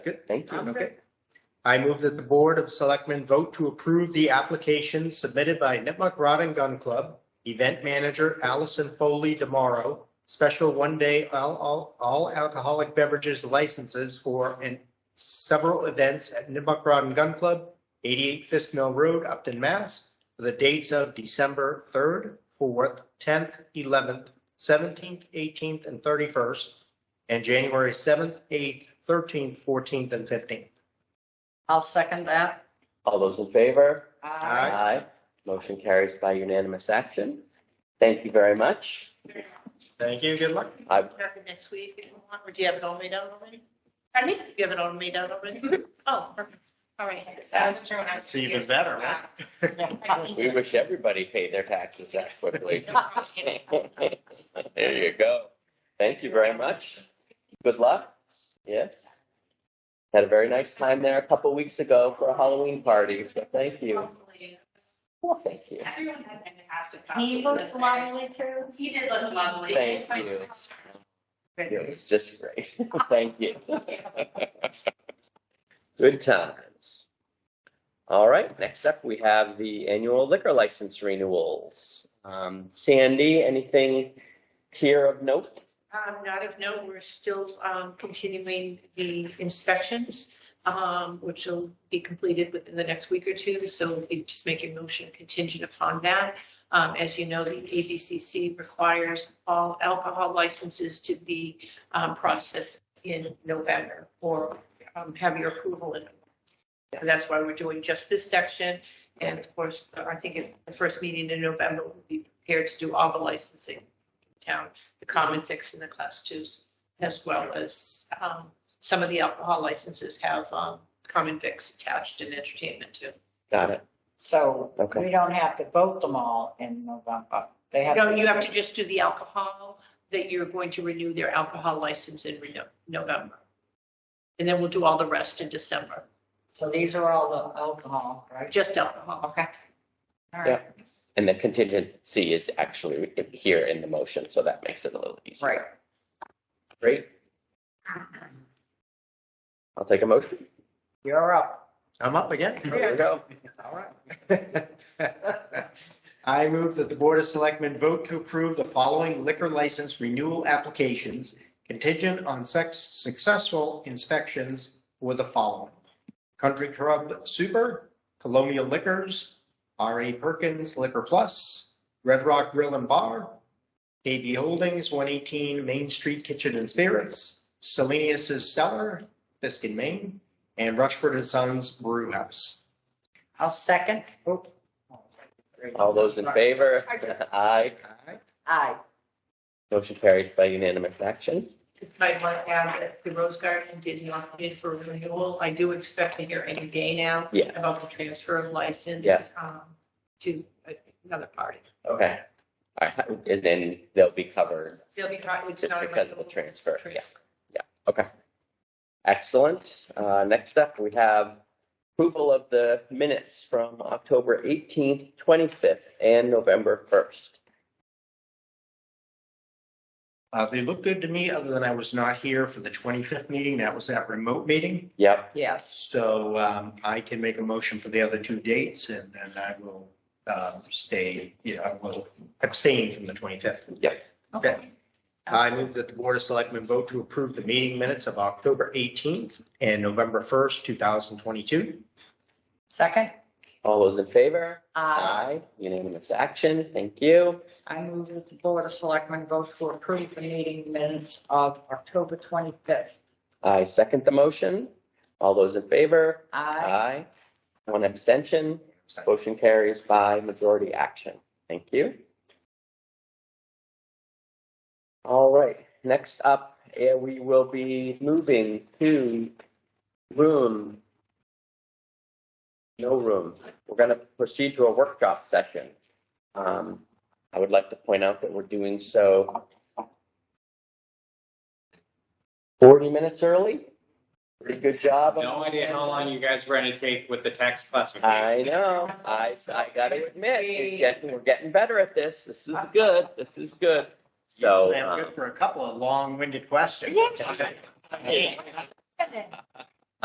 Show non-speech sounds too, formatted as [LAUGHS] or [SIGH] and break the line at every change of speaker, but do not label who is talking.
Good.
Thank you.
Okay. I move that the Board of Selectmen vote to approve the application submitted by Nipmuc Rod and Gun Club, event manager Allison Foley Demaro, special one-day all- all all alcoholic beverages licenses for and several events at Nipmuc Rod and Gun Club, 88 Fisk Mill Road, Upton, Mass, for the dates of December 3rd, 4th, 10th, 11th, 17th, 18th, and 31st, and January 7th, 8th, 13th, 14th, and 15th.
I'll second that.
All those in favor?
Aye.
Motion carries by unanimous action. Thank you very much.
Thank you, good luck.
I,
Happy Next week, if you want, or do you have it all made out already? I mean, you have it all made out already? [LAUGHS] Oh, perfect. all right.
I wasn't sure when I was.
It's even better, right? [LAUGHS]
we wish everybody paid their taxes that
[LAUGHS]
quickly. There you go. Thank you very much. Good luck. Yes. Had a very nice time there a couple weeks ago for a Halloween party, so thank you.
Hopefully, it's-
Well, thank you.
Everyone had fantastic.
He
costumes
looks
there.
lovely too.
He did look lovely.
Thank
It's my
you.
first time.
It was just great. [LAUGHS] Thank you. Good times. All right, next up, we have the annual liquor license renewals. Um, Sandy, anything here of note?
Um, not of note, we're still, um, continuing the inspections, um, which will be completed within the next week or two. So we just make your motion contingent upon that. Um, as you know, the ABCC requires all alcohol licenses to be, um, processed in November or, um, have your approval in. And that's why we're doing just this section. And of course, I think at the first meeting in November, we'll be prepared to do all the licensing in town the common fix and the class twos, as well as um, some of the alcohol licenses have um, common fix attached and entertainment too.
Got it.
So
Okay.
we don't have to vote them all in November. They have.
No, you have to just do the alcohol, that you're going to renew their alcohol license in Reno- November. And then we'll do all the rest in December,
So these are all the alcohol, right?
just alcohol.
Okay. All
Yeah.
right,
And the contingency is actually here in the motion, so that makes it a little easier.
right.
Great. I'll take a motion.
You're up.
I'm up again.
There we go.
All right. I move that the Board of Selectmen vote to approve the following liquor license renewal applications contingent on sex, successful inspections for the following. Country Club Super, Colonial Liquors, R.A. Perkins Liquor Plus, Red Rock Grill and Bar, KB Holdings, 118 Main Street Kitchen and Spirits, Selenius's Cellar, Fisk and Maine, and Rushford and Sons Brew House.
I'll second. Oh.
All those in favor? [LAUGHS] Aye.
Aye.
Aye.
Motion carries by unanimous action.
It's my one add that the Rose Garden did not bid for renewal. I do expect to hear any day now
Yeah.
about the transfer of license
Yes.
um, to another party.
Okay. All right, and then they'll be covered.
They'll be trying, it's
Just
not. a
because of the
renewal, it's a
transfer, yeah. Excellent. Uh, next up, we have approval of the minutes from October eighteenth, twenty-fifth, and November first.
Uh, they look good to me, other than I was not here for the twenty-fifth meeting. That was that remote meeting.
Yep,
Yes.
So, um, I can make a motion for the other two dates and then I will, um, stay, you know, I will abstain from the twenty-fifth.
Yep.
Okay. I move that the Board of Selectmen vote to approve the meeting minutes of October eighteenth and November first, two thousand twenty-two.
Second?
all those in favor?
Aye.
Unanimous action, thank you.
I move that the Board of Selectmen vote to approve the meeting minutes of October 25th.
I second the motion. All those in favor? Aye.
Aye.
One abstention. Motion carries by majority action. Thank you. All right, next up, eh, we will be moving to room. No room. We're going to proceed to a workshop session. Um, I would like to point out that we're doing so 40 minutes early. Pretty good job.
No idea how long you guys were gonna take with the tax classification.
I know. I, I gotta admit, you're getting, we're getting better at this. This is good. This is good. So,
I'm
um,
[LAUGHS] good for a couple of long-winded questions.
Yes.